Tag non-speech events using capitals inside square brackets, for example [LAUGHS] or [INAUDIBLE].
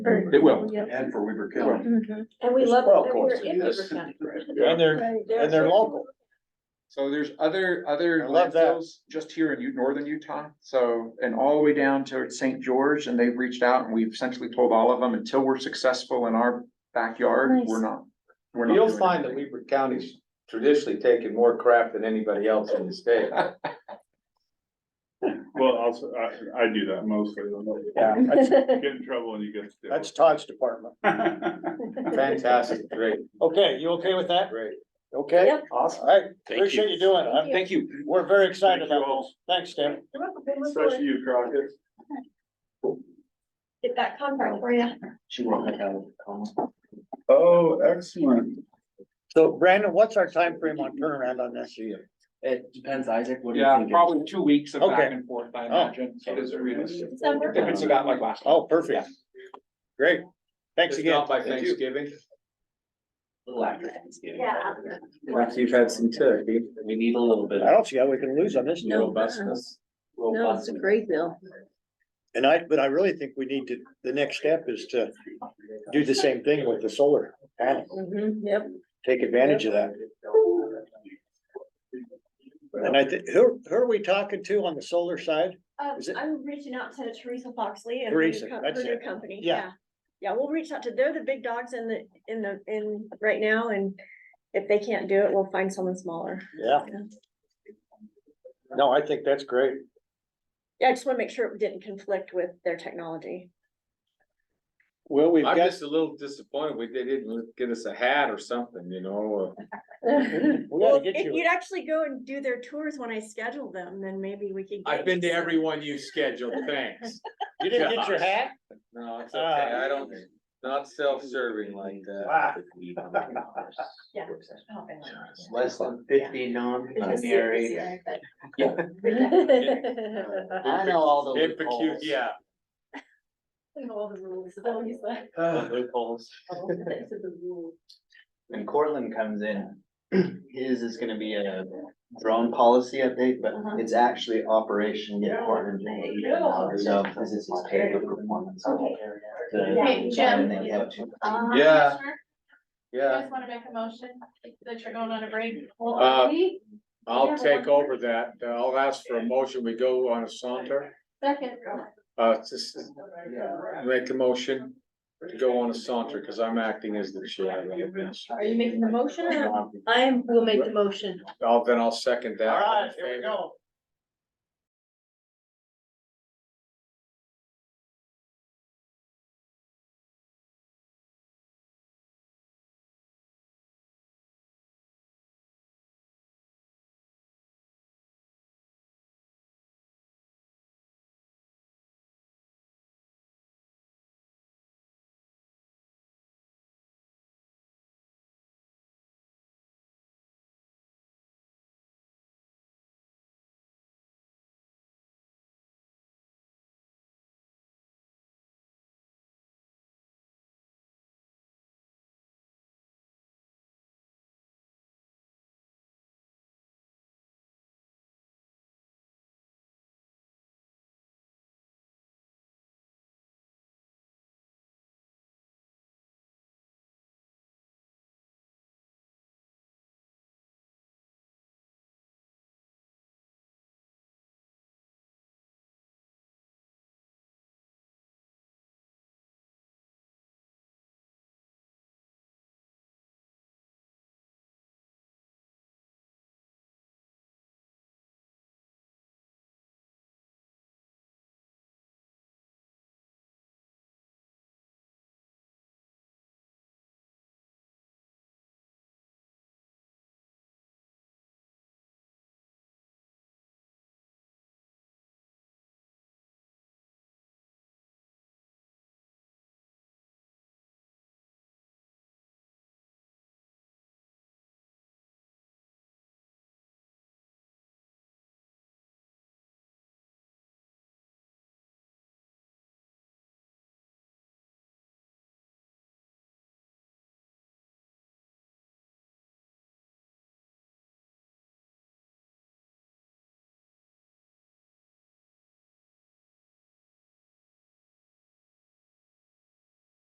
Very It Oh, will. Yep. And for Weaver County. Mhm. And we There's love twelve that we're courses, in yes. Weaver County. [LAUGHS] And they're, Right. and they're local. So there's other, other I love that. landfills just here in U- northern Utah, so, and all the way down to St. George, and they've reached out and we've essentially told all of them, until we're successful in our backyard, Nice. we're not. we're not You'll doing find that anything. Weaver County's traditionally taken more crap than anybody else in the state. Well, also, I, I do that mostly. I'm like, Yeah, that's, Get in trouble and you get. to- that's Todd's department. [LAUGHS] Fantastic, great, Okay, you okay with that? great. Okay? Yep. Awesome. All right, you. appreciate you doing it. I'm- Thank you. We're very excited Thank you about all. this. Thanks, Tim. Especially you, Crockett. Get that contract for [LAUGHS] you. She won't make out of the coma. Oh, excellent. So Brandon, what's our time frame on turnaround on this? It depends, Isaac, what do you Yeah, think? probably two weeks of back Okay. and forth, I imagine, so this is realistic. December. If it's about like last. time. Oh, perfect. Great. Thanks It's again. not By Thanksgiving. A little after Thanksgiving. Yeah. Perhaps you've had some turkey. We need a little bit I of don't see how we can lose on this. No. Robustness. No, it's a great bill. And I, but I really think we need to, the next step is to do the same thing with the solar panel. Mm-hmm, Mhm, Yep. Take advantage of that. And I think, who, who are we talking to on the solar side? Um, Is it- I'm reaching out to Teresa Foxley and her Teresa, new co- that's her new it. company, Yeah. yeah. Yeah, we'll reach out to, they're the big dogs in the, in the, in, right now, and if they can't do it, we'll find someone smaller. Yeah. No, I think that's great. Yeah, I just wanna make sure it didn't conflict with their technology. Well, we've I'm got, just a little disappointed we they didn't get us a hat or something, you know, uh, we Well, gotta get if you, you'd actually go and do their tours when I schedule them, then maybe we could. I've get been to some- every one you scheduled, thanks. you didn't get your hat? No, it's okay, I don't, not self-serving like that. uh, Wow. [LAUGHS] Yeah. less than fifty non-binary. I know all the Impecus- loopholes. Yeah. All the rules, is that what you said? The Loopholes. When Cortland comes in, his is gonna be a drone policy update, but Uh-huh. it's actually Operation Get Cortland Paid. So this is his pay for performance. The- Okay, Jim. and they have two- Uh, Yeah. Commissioner, You Yeah, guys wanna make a motion that you're going on a break? Uh, Well, we, I'll take over that. Uh, I'll ask for a motion. We go on a saunter. second. Uh, just make a motion to go on a saunter because I'm acting as the chair. Are you making the motion or? I will make the motion. I'll, then I'll second that. All right, here we go.